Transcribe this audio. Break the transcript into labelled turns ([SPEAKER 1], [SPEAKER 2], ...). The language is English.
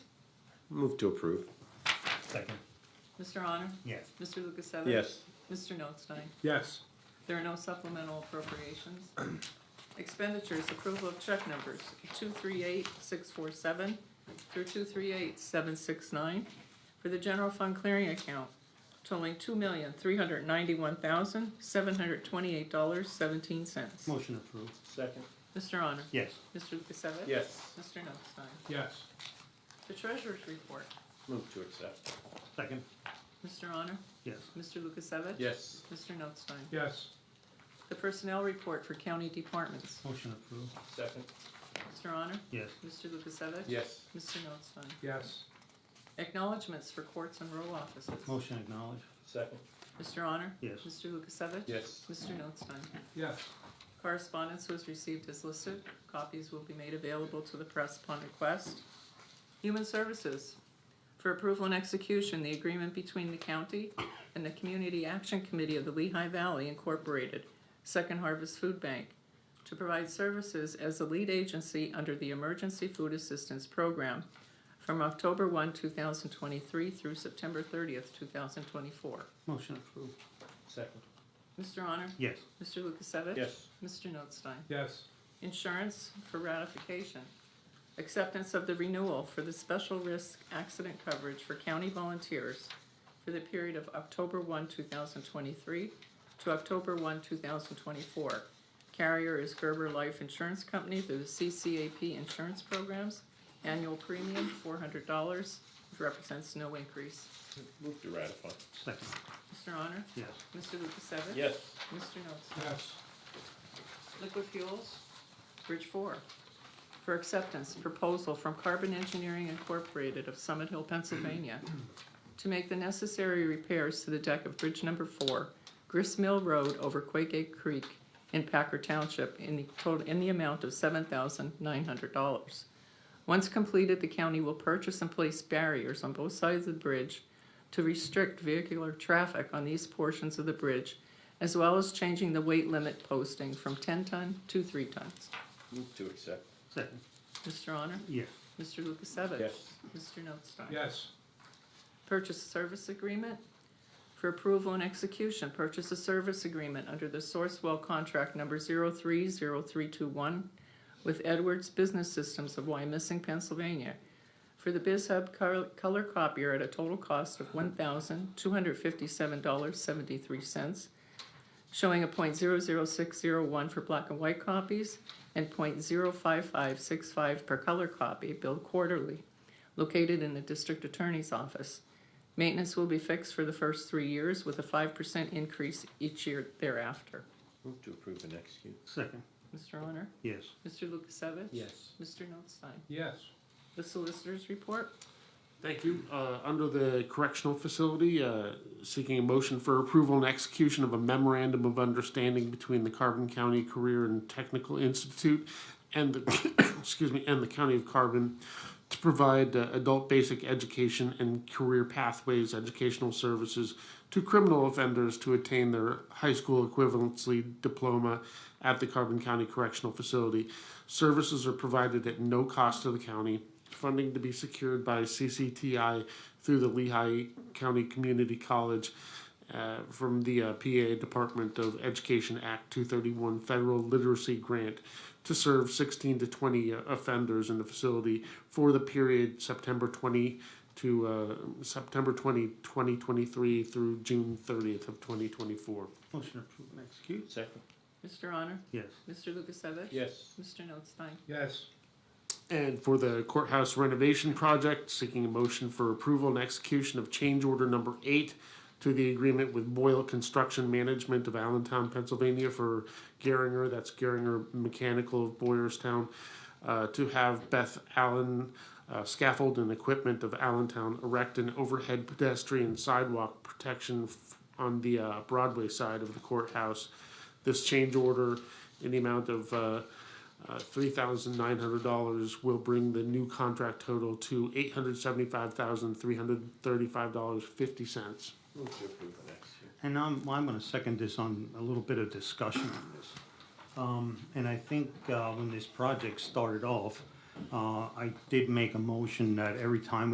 [SPEAKER 1] Move to approve.
[SPEAKER 2] Second.
[SPEAKER 3] Mr. Honor?
[SPEAKER 2] Yes.
[SPEAKER 3] Mr. Lukasevich?
[SPEAKER 1] Yes.
[SPEAKER 3] Mr. Notstein?
[SPEAKER 4] yes,
[SPEAKER 3] There are no supplemental appropriations. Expenditures, approval of check numbers, two three eight six four seven through two three eight seven six nine for the general fund clearing account totaling two million three hundred ninety-one thousand seven hundred twenty-eight dollars seventeen cents.
[SPEAKER 2] Motion approved.
[SPEAKER 1] Second.
[SPEAKER 3] Mr. Honor?
[SPEAKER 2] Yes.
[SPEAKER 3] Mr. Lukasevich?
[SPEAKER 1] Yes.
[SPEAKER 3] Mr. Notstein?
[SPEAKER 4] yes,
[SPEAKER 3] The treasurer's report,
[SPEAKER 1] Move to accept.
[SPEAKER 2] Second.
[SPEAKER 3] Mr. Honor?
[SPEAKER 2] Yes.
[SPEAKER 3] Mr. Lukasevich?
[SPEAKER 1] Yes.
[SPEAKER 3] Mr. Notstein?
[SPEAKER 4] yes,
[SPEAKER 3] The personnel report for county departments,
[SPEAKER 2] Motion approved.
[SPEAKER 1] Second.
[SPEAKER 3] Mr. Honor?
[SPEAKER 2] Yes.
[SPEAKER 3] Mr. Lukasevich?
[SPEAKER 1] Yes.
[SPEAKER 3] Mr. Notstein?
[SPEAKER 4] yes,
[SPEAKER 3] Acknowledgements for courts and row offices.
[SPEAKER 2] Motion acknowledged.
[SPEAKER 1] Second.
[SPEAKER 3] Mr. Honor?
[SPEAKER 2] Yes.
[SPEAKER 3] Mr. Lukasevich?
[SPEAKER 1] Yes.
[SPEAKER 3] Mr. Notstein?
[SPEAKER 4] yes,
[SPEAKER 3] Correspondence was received as listed. Copies will be made available to the press upon request. Human Services, for approval and execution, the agreement between the county and the Community Action Committee of the Lehigh Valley Incorporated, Second Harvest Food Bank, to provide services as the lead agency under the Emergency Food Assistance Program from October one, two thousand twenty-three through September thirtieth, two thousand twenty-four.
[SPEAKER 2] Motion approved.
[SPEAKER 1] Second.
[SPEAKER 3] Mr. Honor?
[SPEAKER 2] Yes.
[SPEAKER 3] Mr. Lukasevich?
[SPEAKER 1] Yes.
[SPEAKER 3] Mr. Notstein?
[SPEAKER 4] yes,
[SPEAKER 3] Insurance for ratification. Acceptance of the renewal for the special risk accident coverage for county volunteers for the period of October one, two thousand twenty-three to October one, two thousand twenty-four. Carrier is Gerber Life Insurance Company through the CCAP Insurance Programs. Annual premium, four hundred dollars, represents no increase.
[SPEAKER 1] Move to ratify.
[SPEAKER 2] Second.
[SPEAKER 3] Mr. Honor?
[SPEAKER 2] Yes.
[SPEAKER 3] Mr. Lukasevich?
[SPEAKER 1] Yes.
[SPEAKER 3] Mr. Notes?
[SPEAKER 4] yes,
[SPEAKER 3] Liquid Fuels, Bridge Four, for acceptance, proposal from Carbon Engineering Incorporated of Summit Hill, Pennsylvania, to make the necessary repairs to the deck of Bridge Number Four, Gristmill Road over Quaygate Creek in Packer Township in the total, in the amount of seven thousand nine hundred dollars. Once completed, the county will purchase and place barriers on both sides of the bridge to restrict vehicular traffic on these portions of the bridge, as well as changing the weight limit posting from ten ton to three tons.
[SPEAKER 1] Move to accept.
[SPEAKER 2] Second.
[SPEAKER 3] Mr. Honor?
[SPEAKER 2] Yes.
[SPEAKER 3] Mr. Lukasevich?
[SPEAKER 1] Yes.
[SPEAKER 3] Mr. Notstein?
[SPEAKER 4] yes,
[SPEAKER 3] Purchase service agreement for approval and execution. Purchase a service agreement under the Sourcewell contract number 030321 with Edwards Business Systems of Wyomissing, Pennsylvania, for the BizHub col- color copier at a total cost of $1,257.73, showing a .00601 for black and white copies and .05565 per color copy, billed quarterly located in the district attorney's office. Maintenance will be fixed for the first three years with a five percent increase each year thereafter.
[SPEAKER 1] Move to approve and execute.
[SPEAKER 2] Second.
[SPEAKER 3] Mr. Honor?
[SPEAKER 2] Yes.
[SPEAKER 3] Mr. Lukasevich?
[SPEAKER 1] Yes.
[SPEAKER 3] Mr. Notstein?
[SPEAKER 4] yes,
[SPEAKER 3] The solicitors report?
[SPEAKER 5] Thank you. Uh, Under the correctional facility, uh, seeking a motion for approval and execution of a memorandum of understanding between the Carbon County Career and Technical Institute and the, excuse me, and the County of Carbon to provide uh, adult basic education and career pathways educational services to criminal offenders to attain their high school equivalency diploma at the Carbon County Correctional Facility. Services are provided at no cost to the county funding to be secured by CCTI through the Lehigh County Community College uh, from the uh, PA Department of Education Act 231 Federal Literacy Grant to serve 16 to 20 offenders in the facility for the period September 20 to uh, September 20, 2023 through June 30th of 2024.
[SPEAKER 2] Motion approved and executed.
[SPEAKER 1] Second.
[SPEAKER 3] Mr. Honor?
[SPEAKER 2] Yes.
[SPEAKER 3] Mr. Lukasevich?
[SPEAKER 1] Yes.
[SPEAKER 3] Mr. Notstein?
[SPEAKER 4] yes,
[SPEAKER 5] And for the courthouse renovation project, seeking a motion for approval and execution of change order number eight to the agreement with Boyle Construction Management of Allentown, Pennsylvania for Geringer, that's Geringer Mechanical of Boyerstown, uh, to have Beth Allen uh, scaffold and equipment of Allentown erect an overhead pedestrian sidewalk protection f- on the uh, Broadway side of the courthouse. This change order in the amount of uh, uh, $3,900 will bring the new contract total to $875,335.50.
[SPEAKER 1] Move to approve and execute.
[SPEAKER 2] And I'm, I'm gonna second this on a little bit of discussion on this. Um, and I think, uh, when this project started off, uh, I did make a motion that every time we